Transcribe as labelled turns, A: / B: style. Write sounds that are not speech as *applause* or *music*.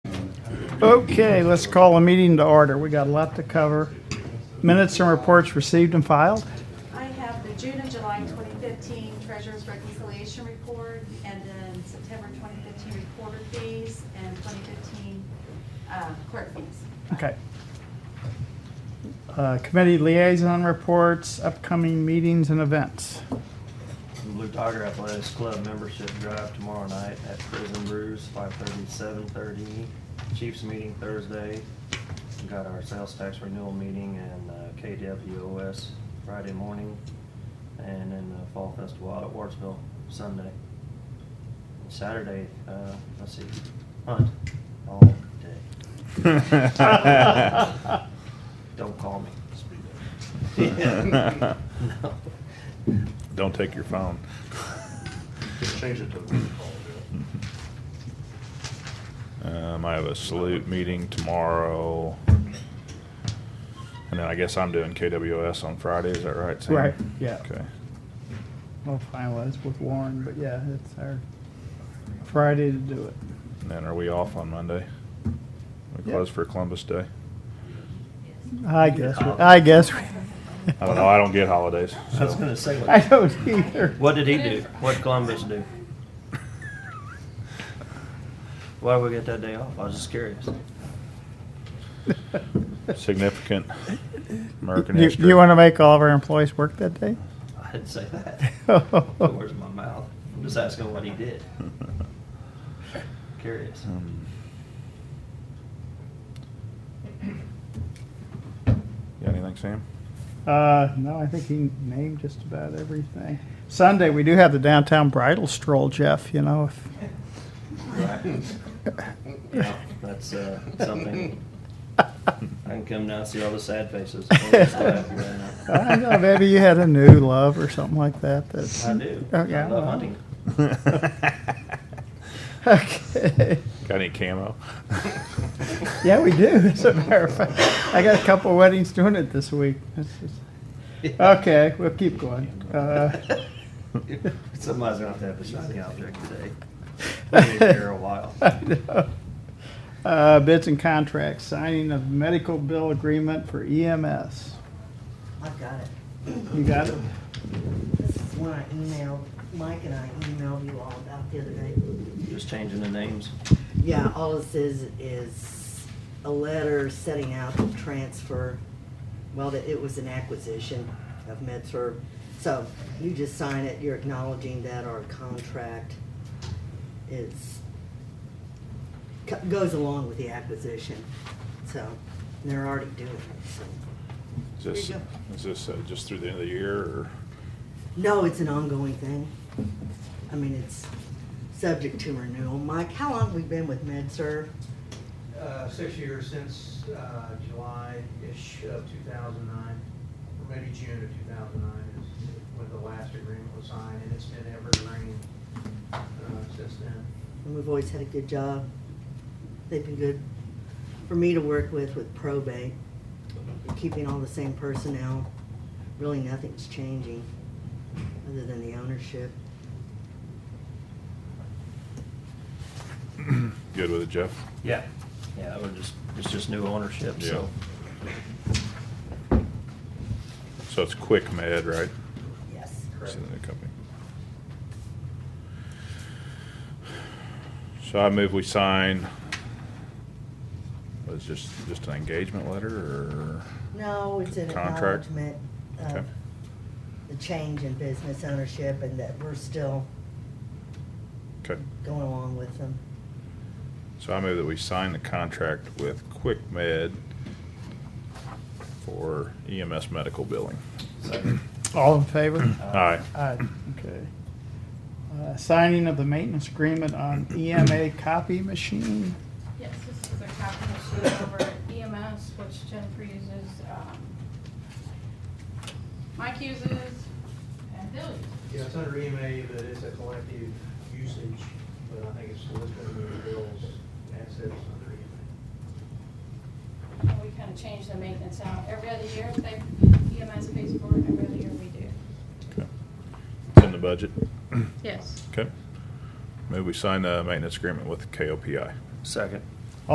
A: Okay, let's call a meeting to order. We got a lot to cover. Minutes and reports received and filed.
B: I have the June and July 2015 Treasurers Reconciliation Report, and then September 2015 Recorder Fees, and 2015 uh, Clerk Fees.
A: Okay. Uh, Committee liaison reports, upcoming meetings and events.
C: Blue Tiger Athletics Club membership drive tomorrow night at Prison Brews, 5:30, 7:30. Chiefs meeting Thursday. We Got our sales tax renewal meeting and uh, KWOS Friday morning. And then the Fall Festival out at Wardsville Sunday. Saturday, uh, let's see, hunt all day.
D: *laughs*
C: Don't call me.
E: *laughs*
C: *laughs* No.
D: Don't take your phone.
E: Just change it to roll call,
D: Um, I have a salute meeting tomorrow. And then I guess I'm doing KWS on Friday, is that right, Sam?
A: Right, yeah.
D: Okay.
A: We'll finalize with Warren, but yeah, it's our Friday to do it.
D: And then are we off on Monday? We
A: Yeah.
D: close for Columbus Day?
A: I guess, we- I guess, we-
D: I don't know, I don't get holidays,
C: I was
D: so.
C: gonna say,
A: *laughs* I
C: what-
A: don't either.
C: what did he do? What Columbus do? Why did we get that day off? I was just curious.
D: Significant American
A: You-
D: history.
A: You want to make all of our employees work that day?
C: I didn't say that.
A: *laughs*
C: Put words in my mouth. I'm just asking what he did.
D: *laughs*
C: Curious.
D: Um, You got anything, Sam?
A: Uh, no, I think he named just about everything. Sunday, we do have the downtown bridal stroll, Jeff, you know, if,
C: Right.
A: *laughs*
C: Yeah, that's uh, something. I can come down and see all the
A: *laughs*
C: sad faces.
A: I don't know,
C: I
A: maybe you had a new love or something like that, that's.
C: do.
A: Oh,
C: I
A: yeah,
C: love
A: well.
C: hunting.
A: *laughs* Okay,
D: Got any camo?
A: *laughs* yeah, we do, as a matter of fact. I got a couple weddings doing it this week. This is- Okay, we'll keep going.
C: *laughs*
A: Uh,
C: Somebody's gonna have to have a shiny object today. We'll be here a while.
A: *laughs* I know. Uh, bids and contracts, signing of medical bill agreement for EMS.
F: I've got it.
A: You got it?
F: This is one I emailed, Mike and I emailed you all about the other day.
C: Just changing the names.
F: Yeah, all this is, is a letter setting out the transfer, well, that it was an acquisition of MedServ. So you just sign it, you're acknowledging that our contract is, co- goes along with the acquisition. So they're already doing it, so.
D: Is this,
F: Here you
D: is this uh, just through the end of the year, or?
F: No, it's an ongoing thing. I mean, it's subject to renewal. Mike, how long have we been with MedServ?
G: uh, six years since uh, July-ish of 2009, or maybe June of 2009 is when the last agreement was signed, and it's been evergreen uh, since then.
F: And we've always had a good job. They've been good for me to work with, with probate, keeping all the same personnel. Really, nothing's changing, other than the ownership.
D: Good with it, Jeff?
C: Yeah. Yeah, we're just, it's just new ownership, so.
D: So it's Quick Med, right?
F: Yes.
D: It's the new company. So I move we sign, was just, just an engagement letter, or?
F: No, it's an
D: Contract?
F: acknowledgement
D: Okay.
F: of the change in business ownership and that we're still
D: Okay,
F: going along with them.
D: so I move that we sign the contract with Quick Med for EMS medical billing.
C: Second.
A: All in favor?
D: Aye.
A: Aye, okay. Uh, Signing of the maintenance agreement on EMA copy machine.
H: Yes, this is a copy machine over at EMS, which Jennifer uses, um, Mike uses, and Bill uses.
G: Yeah, it's under EMA, but it's a collective usage, but I think it's listed in the bills, assets under E EMA.
H: And we kind of change the maintenance out. Every other year, they, EMS pays for it, every other year we do.
D: Okay. It's in the budget.
H: Yes.
D: Okay. Maybe we sign the maintenance agreement with KOPI.
C: Second.